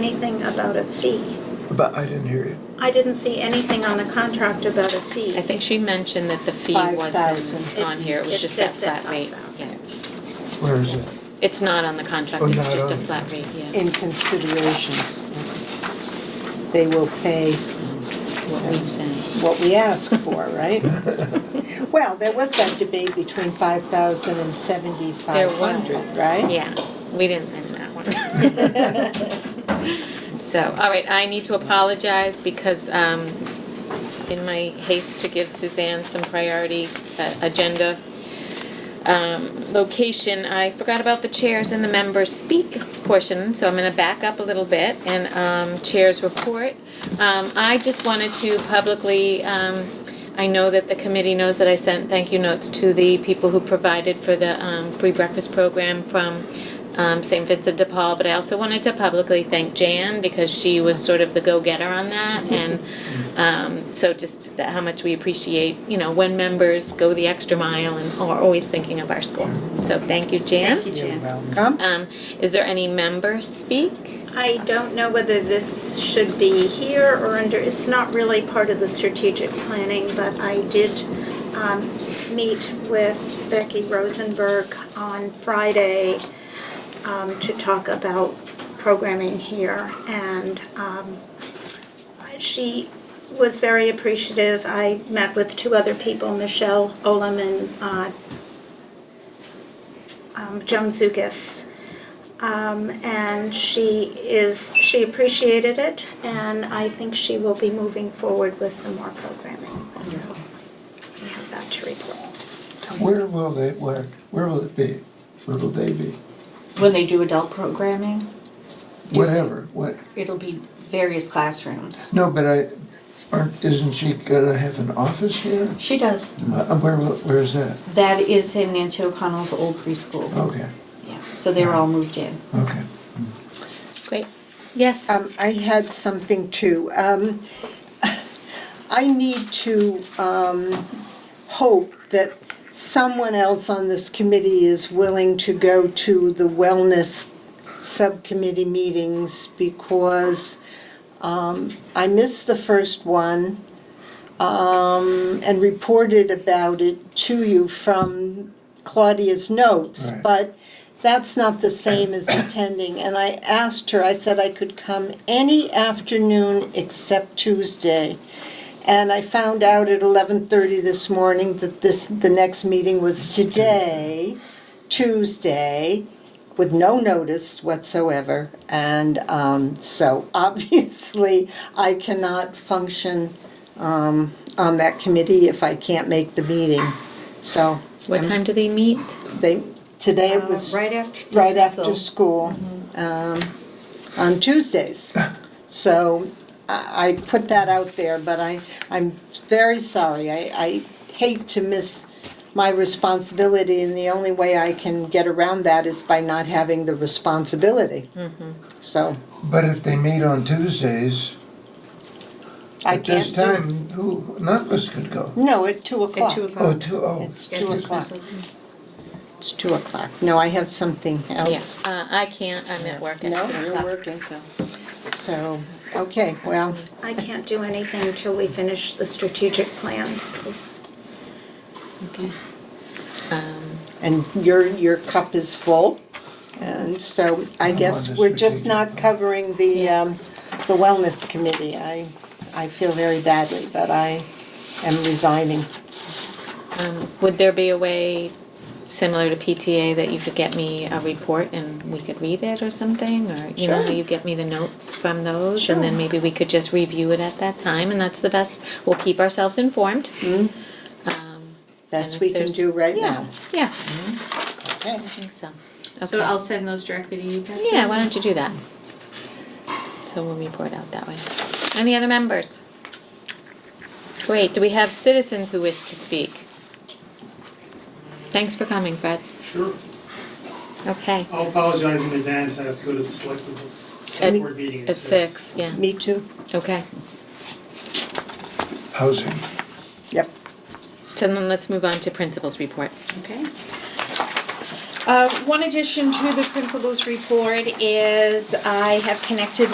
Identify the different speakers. Speaker 1: anything about a fee.
Speaker 2: But I didn't hear you.
Speaker 1: I didn't see anything on the contract about a fee.
Speaker 3: I think she mentioned that the fee
Speaker 4: 5,000.
Speaker 3: wasn't on here, it was
Speaker 1: It's-
Speaker 3: just
Speaker 1: it
Speaker 3: that
Speaker 1: sits at
Speaker 3: flat rate.
Speaker 1: 5,000.
Speaker 3: Yeah.
Speaker 2: Where is it?
Speaker 3: It's not on the contract,
Speaker 2: Oh,
Speaker 3: it's
Speaker 2: not
Speaker 3: just a
Speaker 2: on.
Speaker 3: flat rate, yeah.
Speaker 4: in consideration. They will pay
Speaker 3: What we say.
Speaker 4: what we ask for, right? Well, there was that debate between 5,000 and
Speaker 3: There was.
Speaker 4: 7,500, right?
Speaker 3: Yeah, we didn't win that one. So, all right, I need to apologize because um, in my haste to give Suzanne some priority uh, agenda um, location, I forgot about the chairs and the members speak portion, so I'm going to back up a little bit and um, chairs report. Um, I just wanted to publicly, um, I know that the committee knows that I sent thank you notes to the people who provided for the um, free breakfast program from um, St. Vincent de Paul, but I also wanted to publicly thank Jan because she was sort of the go-getter on that, and um, so just that- how much we appreciate, you know, when members go the extra mile and are always thinking of our school. So thank you, Jan.
Speaker 4: You're welcome.
Speaker 3: Um, is there any member speak?
Speaker 1: I don't know whether this should be here or under, it's not really part of the strategic planning, but I did um, meet with Becky Rosenberg on Friday um, to talk about programming here. And um, she was very appreciative. I met with two other people, Michelle Olam and uh, um, Joan Zukis. Um, and she is, she appreciated it, and I think she will be moving forward with some more programming. We have that to report.
Speaker 2: Where will they, where, where will it be? Where will they be?
Speaker 5: When they do adult programming,
Speaker 2: Whatever, what,
Speaker 5: it'll be various classrooms.
Speaker 2: no, but I, aren't, isn't she gonna have an office here?
Speaker 5: She does.
Speaker 2: Uh, Where, will- where is that?
Speaker 5: That is in Nancy O'Connell's old preschool.
Speaker 2: Okay,
Speaker 5: Yeah, so they're all moved in.
Speaker 2: okay.
Speaker 3: Great. Yes.
Speaker 4: Um, I had something too. Um, I need to, um, hope that someone else on this committee is willing to go to the wellness subcommittee meetings because, um, I missed the first one, um, and reported about it to you from Claudia's notes.
Speaker 2: Right.
Speaker 4: But that's not the same as attending. And I asked her, I said I could come any afternoon except Tuesday. And I found out at 11:30 this morning that this, the next meeting was today, Tuesday, with no notice whatsoever. And um, so obviously, I cannot function um, on that committee if I can't make the meeting. So
Speaker 3: What time do they meet?
Speaker 4: they, today it was
Speaker 5: Uh, Um, Right after
Speaker 4: right after
Speaker 5: dismissal. Mm-hmm.
Speaker 4: school um, on Tuesdays. So I I put that out there, but I, I'm very sorry. I, I hate to miss my responsibility, and the only way I can get around that is by not having the responsibility.
Speaker 5: Mm-hmm.
Speaker 4: So
Speaker 2: But if they meet on Tuesdays,
Speaker 4: I
Speaker 2: at this
Speaker 4: can't do.
Speaker 2: time, who, none of us could go.
Speaker 4: No, at 2 o'clock.
Speaker 5: At two
Speaker 2: Oh,
Speaker 5: o'clock.
Speaker 2: two, oh,
Speaker 4: It's
Speaker 5: At
Speaker 4: 2 o'clock.
Speaker 5: dismissal.
Speaker 4: It's 2 o'clock. No, I have something
Speaker 3: Yeah,
Speaker 4: else.
Speaker 3: uh, I can't, I'm at work at
Speaker 4: No,
Speaker 3: two
Speaker 4: you're
Speaker 3: o'clock,
Speaker 4: working.
Speaker 3: so.
Speaker 4: So, okay, well,
Speaker 1: I can't do anything until we finish the strategic plan.
Speaker 3: Okay. Um,
Speaker 4: and your, your cup is full. And so I
Speaker 2: I'm on
Speaker 4: guess
Speaker 2: the
Speaker 4: we're just
Speaker 2: strategic
Speaker 4: not
Speaker 2: plan.
Speaker 4: covering the, um, the wellness committee. I, I feel very badly, but I am resigning.
Speaker 3: um, Would there be a way similar to PTA that you could get me a report and we could read it or something? Or, you know, how
Speaker 4: Sure.
Speaker 3: you get me the notes from those? And then maybe we could just review it at that time and that's the best, we'll keep ourselves informed.
Speaker 4: Mm.
Speaker 3: Um, and
Speaker 4: Best
Speaker 3: if
Speaker 4: we can
Speaker 3: there's-
Speaker 4: do right
Speaker 3: yeah,
Speaker 4: now.
Speaker 3: Yeah,
Speaker 4: Okay.
Speaker 3: I think so.
Speaker 5: So
Speaker 3: Okay.
Speaker 5: I'll send those directly to you, Patsy.
Speaker 3: Yeah, why don't you do that? So we'll report out that way. Any other members? Great, do we have citizens who wish to speak? Thanks for coming, Fred.
Speaker 6: Sure.
Speaker 3: Okay,
Speaker 6: I'll apologize in advance, I have to go to the select board, select board meeting
Speaker 3: at six, yeah,
Speaker 4: Me too.
Speaker 3: okay.
Speaker 2: housing.
Speaker 4: Yep.
Speaker 3: So then let's move on to principals report.
Speaker 7: Okay. Uh, One addition to the principal's report is I have connected